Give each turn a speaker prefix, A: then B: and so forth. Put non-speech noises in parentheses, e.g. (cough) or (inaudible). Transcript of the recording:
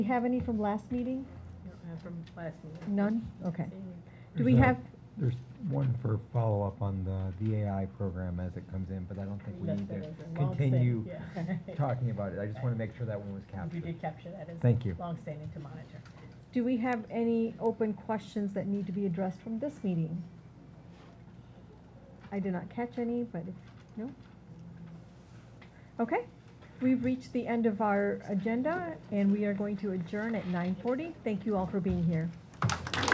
A: we have any from last meeting?
B: No, uh, From last meeting.
A: None? Okay. Do
C: There's
A: we
C: a-
A: have,
C: There's one for follow-up on the, the AI program as it comes in, but I don't think we
B: That's
C: need
B: the
C: to
B: reason. Long standing,
C: continue
B: yeah.
C: talking about it. I just want to make sure that one was
B: (laughs)
C: captured.
B: We did capture that as.
C: Thank you.
B: Longstanding to monitor.
A: do we have any open questions that need to be addressed from this meeting? I did not catch any, but if, no? Okay, we've reached the end of our agenda, and we are going to adjourn at nine forty. Thank you all for being here.